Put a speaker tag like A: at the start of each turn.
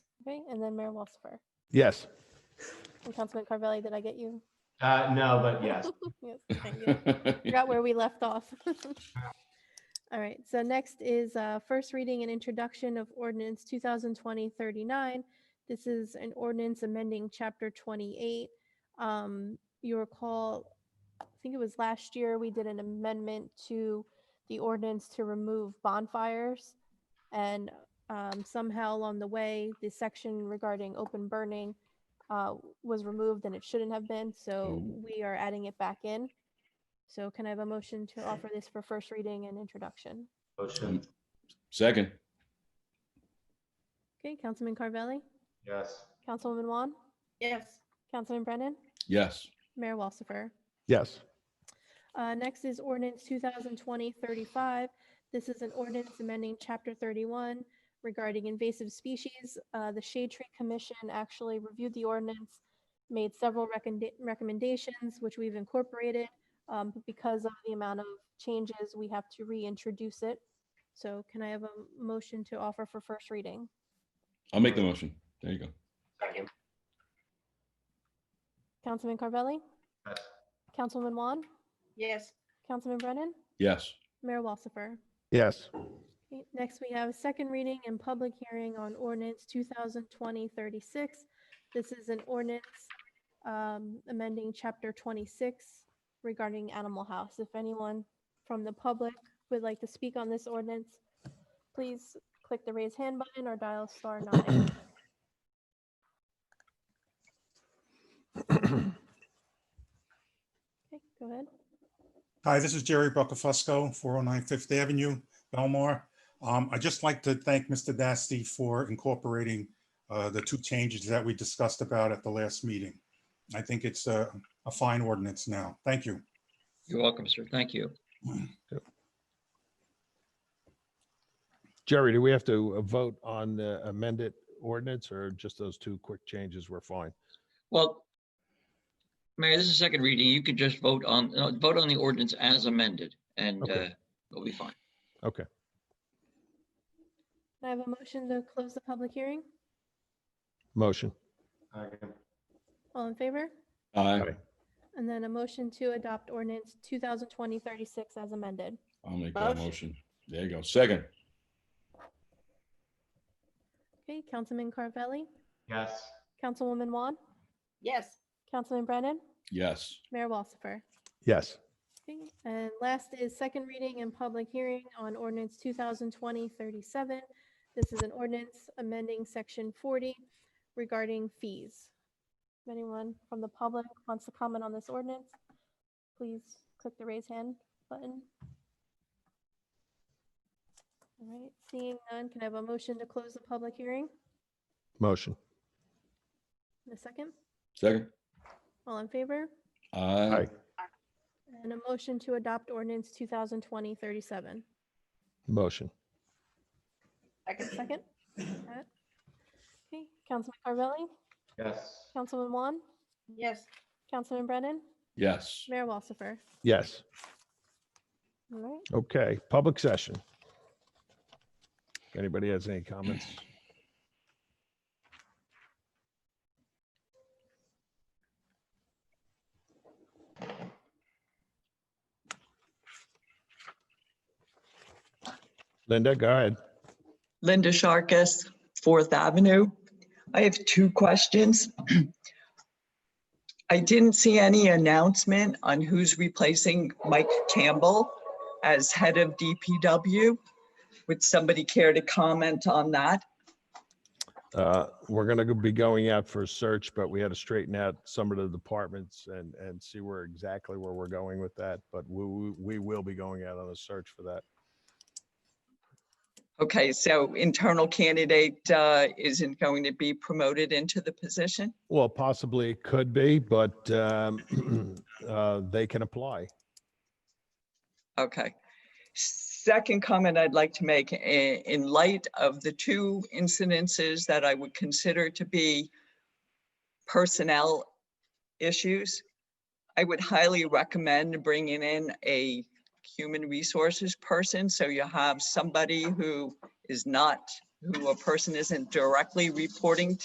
A: Okay, and then Mayor Walsifer.
B: Yes.
A: And Councilman Carvelli, did I get you?
C: Uh, no, but yes.
A: Yes, thank you. Forgot where we left off. All right, so next is uh, first reading and introduction of ordinance 2020-39. This is an ordinance amending Chapter 28. Um, You recall, I think it was last year, we did an amendment to the ordinance to remove bonfires. And um, somehow along the way, the section regarding open burning uh, was removed and it shouldn't have been, so we are adding it back in. So can I have a motion to offer this for first reading and introduction?
C: Motion,
D: Second,
A: Okay, Councilman Carvelli,
C: yes.
A: Councilwoman Juan,
E: Yes.
A: Councilman Brennan,
D: yes.
A: Mayor Walsifer.
B: Yes.
A: Uh, next is ordinance 2020-35. This is an ordinance amending chapter 31 regarding invasive species. Uh, the Shade Tree Commission actually reviewed the ordinance, made several recommenda- recommendations, which we've incorporated. Um, but because of the amount of changes, we have to reintroduce it. So can I have a motion to offer for first reading?
D: I'll make the motion. There you go.
C: Second.
A: Councilman Carvelli,
C: Yes.
A: Councilwoman Juan,
E: Yes.
A: Councilman Brennan,
D: Yes.
A: Mayor Walsifer.
B: Yes.
A: Okay, Next, we have second reading and public hearing on ordinance 2020-36. This is an ordinance um, amending Chapter 26 regarding Animal House. If anyone from the public would like to speak on this ordinance, please click the raise hand button or dial star nine. Okay, go ahead.
F: Hi, this is Jerry Buckafusco, 409 Fifth Avenue, Belmar. Um, I'd just like to thank Mr. Dasty for incorporating uh, the two changes that we discussed about at the last meeting. I think it's a a fine ordinance now. Thank you.
G: You're welcome, sir. Thank you.
B: Jerry, do we have to uh, vote on the amended ordinance or just those two quick changes were fine?
G: Well, Mayor, this is second reading. You could just vote on, uh, vote on the ordinance as amended and uh,
B: Okay.
G: it'll be fine.
B: Okay.
A: Can I have a motion to close the public hearing.
B: Motion.
C: Second.
A: All in favor?
D: Aye.
B: Aye.
A: And then a motion to adopt ordinance 2020-36 as amended.
D: I'll make that motion. There you go. Second,
A: Okay, Councilman Carvelli,
C: Yes.
A: Councilwoman Juan,
E: Yes.
A: Councilman Brennan,
D: yes.
A: Mayor Walsifer.
B: Yes.
A: Okay, and last is second reading and public hearing on ordinance 2020-37. This is an ordinance amending section 40 regarding fees. If anyone from the public wants to comment on this ordinance, please click the raise hand button. All right, seeing none, can I have a motion to close the public hearing?
B: Motion.
A: In a second,
D: Second.
A: all in favor?
D: Aye.
B: Aye.
A: And a motion to adopt ordinance 2020-37.
B: Motion.
E: Second.
A: Second? Alright. Okay, Councilman Carvelli,
C: Yes.
A: Councilman Juan,
E: Yes.
A: Councilman Brennan,
D: Yes.
A: Mayor Walsifer.
B: Yes.
A: All right,
B: Okay. Public session. Anybody has any comments? Linda, go ahead.
H: Linda Sharkus, Fourth Avenue. I have two questions. I didn't see any announcement on who's replacing Mike Campbell as head of DPW. Would somebody care to comment on that?
B: Uh, We're going to be going out for a search, but we had to straighten out some of the departments and, and see where exactly where we're going with that. But we, we- we will be going out on a search for that.
H: Okay, so internal candidate uh, isn't going to be promoted into the position?
B: Well, possibly it could be, but um, uh, they can apply.
H: Okay. Second comment I'd like to make, i- in light of the two incidences that I would consider to be personnel issues, I would highly recommend bringing in a human resources person, so you have somebody who is not who a person isn't directly reporting